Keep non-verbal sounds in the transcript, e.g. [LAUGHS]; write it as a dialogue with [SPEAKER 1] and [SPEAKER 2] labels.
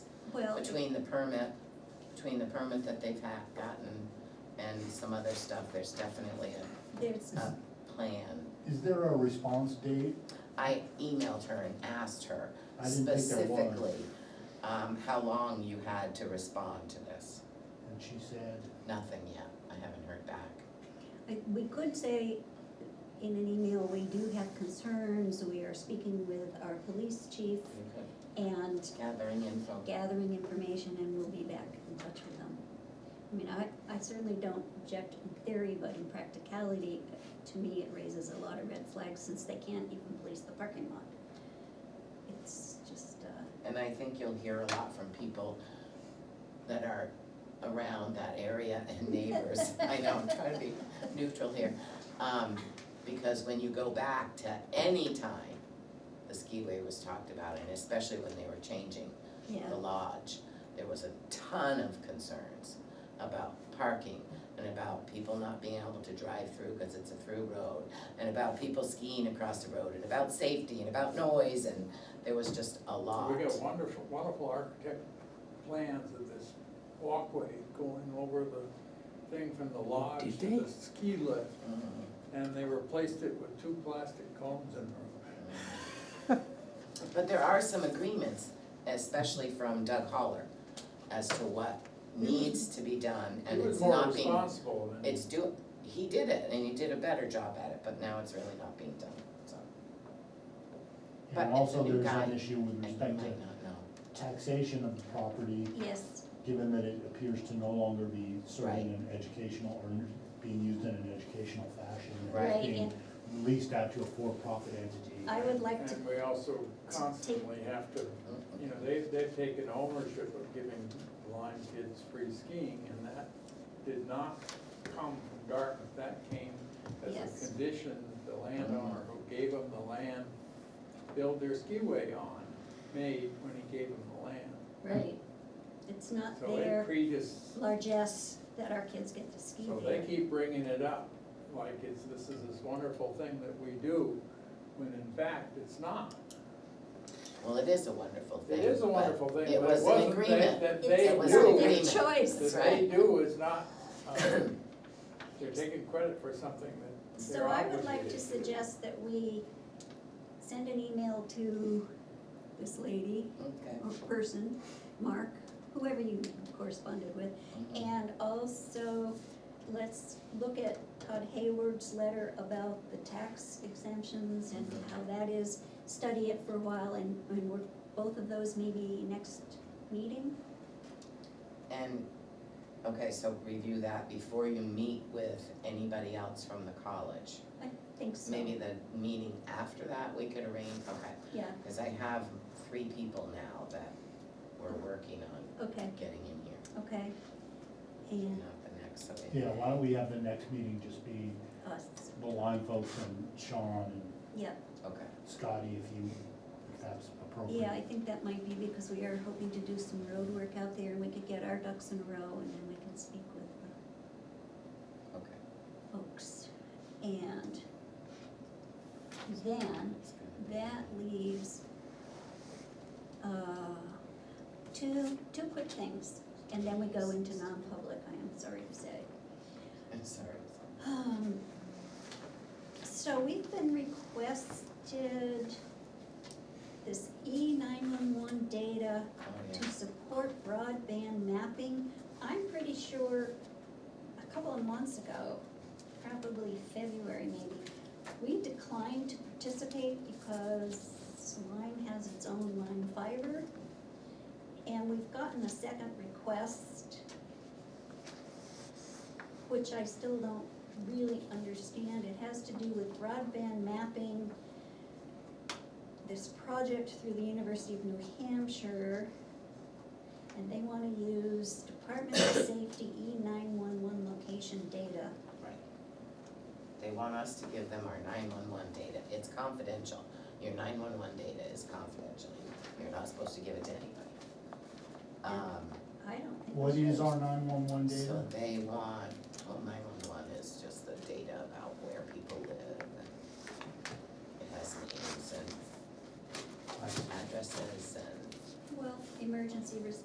[SPEAKER 1] between the permit, between the permit that they've ha gotten and some other stuff, there's definitely
[SPEAKER 2] There's,
[SPEAKER 1] a, a plan.
[SPEAKER 3] Is there a response date?
[SPEAKER 1] I emailed her and asked her
[SPEAKER 3] I didn't think there was.
[SPEAKER 1] specifically, um, how long you had to respond to this.
[SPEAKER 3] And she said,
[SPEAKER 1] Nothing yet, I haven't heard back.
[SPEAKER 2] I- we could say in an email, we do have concerns, we are speaking with our police chief
[SPEAKER 1] You could-
[SPEAKER 2] and
[SPEAKER 1] Gathering info.
[SPEAKER 2] gathering information and we'll be back in touch with them. I mean, I, I certainly don't object in theory, but in practicality, to me, it raises a lot of red flags since they can't even police the parking lot. It's just, uh,
[SPEAKER 1] And I think you'll hear a lot from people that are around that area and neighbors. I know, I'm trying to be neutral here. Um, because when you go back to any time, the skiway was talked about, and especially when they were changing
[SPEAKER 2] yeah,
[SPEAKER 1] the lodge, there was a ton of concerns about parking and about people not being able to drive through because it's a through road, and about people skiing across the road, and about safety, and about noise, and there was just a lot.
[SPEAKER 4] We got wonderful, wonderful architect plans of this walkway going over the thing from the lodge
[SPEAKER 5] did
[SPEAKER 4] to
[SPEAKER 5] they?
[SPEAKER 4] the ski lift.
[SPEAKER 1] Mhm.
[SPEAKER 4] And they replaced it with two plastic cones in there.
[SPEAKER 1] [LAUGHS] But there are some agreements, especially from Doug Holler, as to what needs to be done, and
[SPEAKER 4] He was
[SPEAKER 1] it's
[SPEAKER 4] more
[SPEAKER 1] not being,
[SPEAKER 4] responsible than.
[SPEAKER 1] it's do, he did it, and he did a better job at it, but now it's really not being done, so. But
[SPEAKER 3] and
[SPEAKER 1] it's a
[SPEAKER 3] also
[SPEAKER 1] new
[SPEAKER 3] there's an
[SPEAKER 1] guy,
[SPEAKER 3] issue with
[SPEAKER 1] And you might
[SPEAKER 3] respect to
[SPEAKER 1] not know.
[SPEAKER 3] taxation of the property,
[SPEAKER 2] yes,
[SPEAKER 3] given that it appears to no longer be
[SPEAKER 1] Right.
[SPEAKER 3] serving an educational or being used in an educational fashion. and it's
[SPEAKER 2] Right,
[SPEAKER 3] Being leased out to a for-profit entity.
[SPEAKER 2] I would like to,
[SPEAKER 4] And we also constantly have to, you know, they've, they've taken ownership of giving blind kids free skiing and that did not come from Dartmouth, that came as
[SPEAKER 2] Yes.
[SPEAKER 4] a condition, the landowner who gave them the land, build their skiway on, made when he gave them the land.
[SPEAKER 2] right, it's not
[SPEAKER 4] So it
[SPEAKER 2] their
[SPEAKER 4] predis,
[SPEAKER 2] largesse that our kids get to ski
[SPEAKER 4] So they
[SPEAKER 2] there.
[SPEAKER 4] keep bringing it up, like it's, this is this wonderful thing that we do, when in fact, it's not.
[SPEAKER 1] Well, it is a wonderful
[SPEAKER 4] It
[SPEAKER 1] thing.
[SPEAKER 4] is a
[SPEAKER 1] but
[SPEAKER 4] wonderful thing, but it
[SPEAKER 1] was an
[SPEAKER 4] wasn't that,
[SPEAKER 1] agreement.
[SPEAKER 4] that they
[SPEAKER 2] It's
[SPEAKER 1] It was
[SPEAKER 2] not
[SPEAKER 1] an
[SPEAKER 4] do,
[SPEAKER 2] their
[SPEAKER 1] agreement.
[SPEAKER 2] choice.
[SPEAKER 1] That's
[SPEAKER 4] that they
[SPEAKER 1] right.
[SPEAKER 4] do is not, uh, they're taking credit for something that
[SPEAKER 2] So
[SPEAKER 4] they're
[SPEAKER 2] I
[SPEAKER 4] obligated
[SPEAKER 2] would like to suggest that we send an email to this lady
[SPEAKER 1] Okay.
[SPEAKER 2] or person, Mark, whoever you corresponded with.
[SPEAKER 1] Mhm.
[SPEAKER 2] And also, let's look at Todd Hayward's letter about the tax exemptions and
[SPEAKER 4] Mm-hmm.
[SPEAKER 2] how that is. Study it for a while and, and we're, both of those maybe next meeting?
[SPEAKER 1] And, okay, so review that before you meet with anybody else from the college.
[SPEAKER 2] I think so.
[SPEAKER 1] Maybe the meeting after that, we could arrange, okay,
[SPEAKER 2] Yeah,
[SPEAKER 1] because I have three people now that we're working on
[SPEAKER 2] okay,
[SPEAKER 1] getting in here,
[SPEAKER 2] okay. And
[SPEAKER 1] not the next, so. we-
[SPEAKER 3] Yeah, why don't we have the next meeting just be
[SPEAKER 2] us,
[SPEAKER 3] the line folks and Sean and
[SPEAKER 2] yeah.
[SPEAKER 1] Okay,
[SPEAKER 3] Scotty, if you, if that's appropriate.
[SPEAKER 2] Yeah, I think that might be because we are hoping to do some road work out there and we could get our ducks in a row and then we can speak with the
[SPEAKER 1] okay.
[SPEAKER 2] folks. And then
[SPEAKER 1] It's gonna be-
[SPEAKER 2] that leaves uh, two, two quick things. And then we go into non-public, I am sorry to say.
[SPEAKER 1] I'm sorry.
[SPEAKER 2] Um, So we've been requested this E nine-one-one data
[SPEAKER 1] Oh,
[SPEAKER 2] to
[SPEAKER 1] yeah.
[SPEAKER 2] support broadband mapping. I'm pretty sure a couple of months ago, probably February maybe, we declined to participate because Lime has its own Lime fiber. And we've gotten a second request, which I still don't really understand. It has to do with broadband mapping this project through the University of New Hampshire. And they wanna use Department of Safety E nine-one-one location data.
[SPEAKER 1] Right. They want us to give them our nine-one-one data, it's confidential, your nine-one-one data is confidential, you're not supposed to give it to anybody. Um,
[SPEAKER 2] I don't think.
[SPEAKER 3] What
[SPEAKER 2] we
[SPEAKER 3] is
[SPEAKER 2] should.
[SPEAKER 3] our nine-one-one data?
[SPEAKER 1] so they want, well, nine-one-one is just the data about where people live, and it has names and
[SPEAKER 3] I-
[SPEAKER 1] addresses and
[SPEAKER 2] Well, emergency res-